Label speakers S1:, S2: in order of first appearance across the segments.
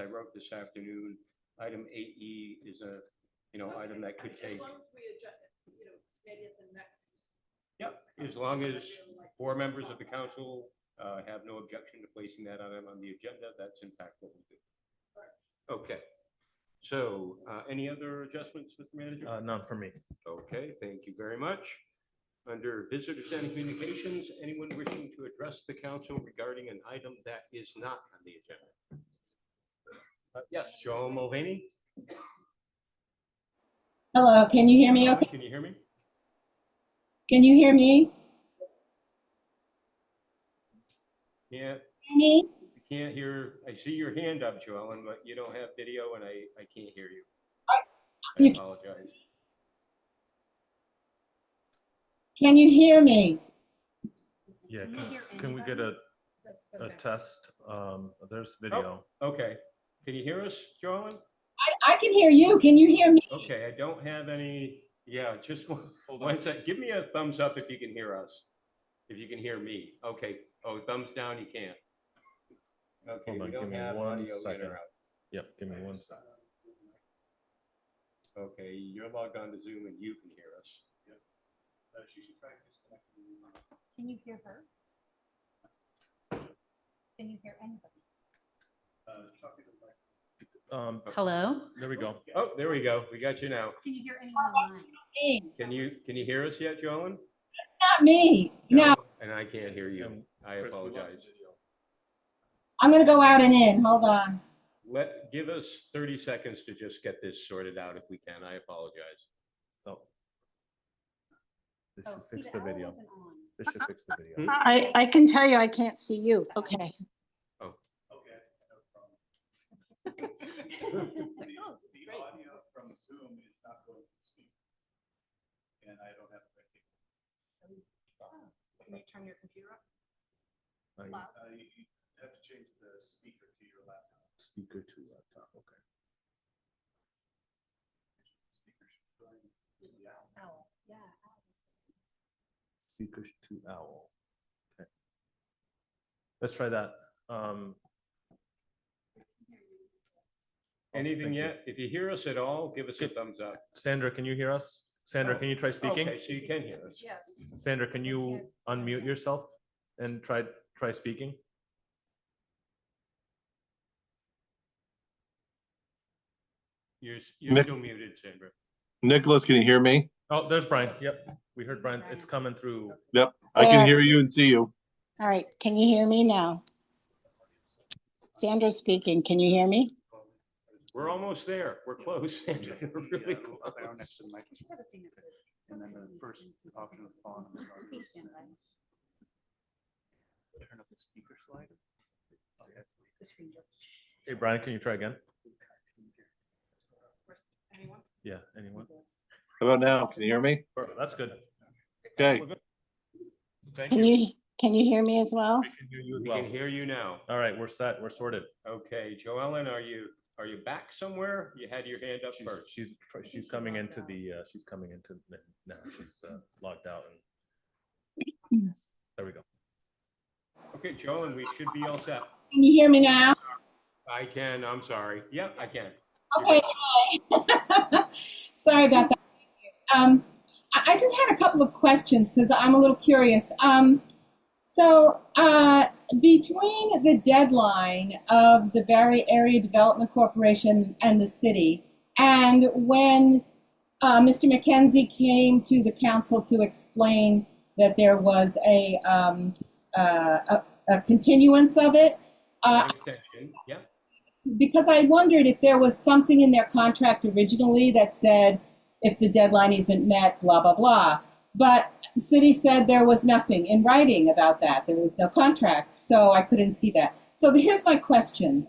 S1: up this afternoon. Item eight E is a, you know, item that could
S2: As
S1: take,
S2: long as we adjust, you know, maybe at the next.
S1: Yep, as long
S2: I'd
S1: as
S2: really like
S1: four
S2: to
S1: members of
S2: talk
S1: the
S2: about that.
S1: council uh, have no objection to placing that item on the agenda. That's in fact what we do. Okay, so uh, any other adjustments, Mr. Manager?
S3: Uh, none for me.
S1: Okay, thank you very much. Under visitors and communications, anyone wishing to address the council regarding an item that is not on the agenda? Uh, Yes, Joel Mulvaney?
S4: Hello, can you hear me okay?
S1: Can you hear me?
S4: Can you hear me?
S1: Yeah,
S4: Hear Me?
S1: I can't hear, I see your hand up, Joellen, but you don't have video and I, I can't hear you. I
S4: You-
S1: apologize.
S4: Can you hear me?
S3: Yeah,
S2: Can we
S3: can-
S2: hear
S3: can we get a,
S2: anybody? That's the
S3: a
S2: next-
S3: test? Um, there's video.
S1: Okay, can you hear us, Joellen?
S4: I, I can hear you. Can you hear me?
S1: Okay, I don't have any, yeah, just one, one sec, give me a thumbs up if you can hear us. If you can hear me, okay, oh, thumbs down, you can't. Okay,
S3: Hold
S1: we
S3: on, give
S1: don't
S3: me
S1: have
S3: one
S1: audio in
S3: second.
S1: or out.
S3: Yep, give me one second.
S1: Okay, you're logged on to Zoom and you can hear us.
S5: Can you hear her? Can you hear anybody?
S3: Um,
S5: Hello?
S3: there we go.
S1: Oh, there we go, we got you now.
S5: Can you hear anyone online?
S4: Me.
S1: Can you, can you hear us yet, Joellen?
S4: It's not me. No,
S1: And I can't hear you,
S3: Um,
S1: I
S3: Chris, we lost the
S1: apologize.
S3: video.
S4: I'm gonna go out and in. Hold on.
S1: Let, give us thirty seconds to just get this sorted out if we can, I apologize.
S3: Oh. They
S5: Oh,
S3: should
S5: see,
S3: fix
S5: the
S3: the
S5: arrow
S3: video.
S5: wasn't on.
S3: They should fix the video.
S1: Hmm?
S6: I, I can tell you, I can't see you. Okay.
S2: It's like, oh,
S7: The
S2: great.
S7: audio from Zoom is not going to speak. And I don't have, the right thing.
S2: Can you turn your computer up?
S3: I-
S5: Loud.
S7: uh, you you have to change the speaker to your laptop.
S3: Speaker to laptop, okay.
S7: Speaker should go in. Yeah.
S5: Owl. Oh, Yeah. owl.
S3: Speaker to owl. Okay. Let's try that. Um,
S1: Anything
S3: thank you.
S1: yet? If you hear us at all, give us a thumbs up.
S3: Sandra, can you hear us? Sandra,
S1: Oh,
S3: can you try speaking?
S1: Okay, so you can hear us.
S2: Yes.
S3: Sandra, can you
S5: can't-
S3: unmute yourself and try, try speaking?
S1: You're, s- you're
S8: Nick-
S1: still muted, Sandra.
S8: Nicholas, can you hear me?
S3: Oh, there's Brian. Yep, we
S5: Hey,
S3: heard Brian. It's
S5: Brian.
S3: coming through.
S8: I
S6: There.
S8: can hear you and see you.
S6: All right. Can you hear me now? Sandra speaking. Can you hear me?
S1: We're almost there. We're close, Sandra.
S7: The,
S1: We're really
S7: uh, little arrow
S1: close.
S7: next to the mic,
S5: Should have a thing that says-
S7: And then the first option of on. is on
S5: Please
S7: those
S5: stand by.
S7: settings. Turn up the speaker slider. Oh, yeah, that's weird.
S5: The screen goes,
S3: Hey, Brian, can you try again?
S2: Anyone?
S3: Yeah, anyone?
S8: How about now? Can you hear me?
S3: That's good.
S8: Okay.
S3: Thank
S6: Can you, can you hear me as well?
S1: We
S3: well.
S1: can hear you now.
S3: All right, we're set. We're sorted.
S1: Okay, Joellen, are you, are you back somewhere? You had your hand up
S3: She's,
S1: first.
S3: she's, tr-
S5: think
S3: she's
S5: she
S3: coming
S5: logged
S3: into
S5: out.
S3: the, uh, she's coming into, the- now she's, uh, logged out and there we go.
S1: Okay, Joellen, we should be all set.
S4: Can you hear me now?
S1: I can, I'm sorry. Yeah, I can.
S4: Okay. yay. Sorry about that. Um, I, I just had a couple of questions because I'm a little curious. Um, so uh, between the deadline of the Barry Area Development Corporation and the city, and when uh, Mr. McKenzie came to the council to explain that there was a um, uh, a, a continuance of it. Uh,
S1: An Extension, yeah.
S4: because I wondered if there was something in their contract originally that said if the deadline isn't met, blah, blah, blah. But the city said there was nothing in writing about that. There was no contract, so I couldn't see that. So here's my question.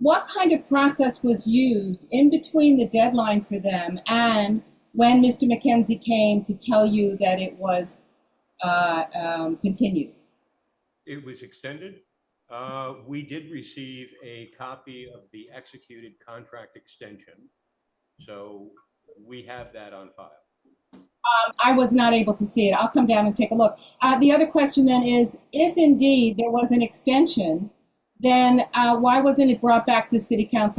S4: What kind of process was used in between the deadline for them and when Mr. McKenzie came to tell you that it was uh, um, continued?
S1: It was extended. Uh, We did receive a copy of the executed contract extension. So we have that on file.
S4: I was not able to see it. I'll come down and take a look. Uh, the other question then is, if indeed there was an extension, then uh, why wasn't it brought back to City Council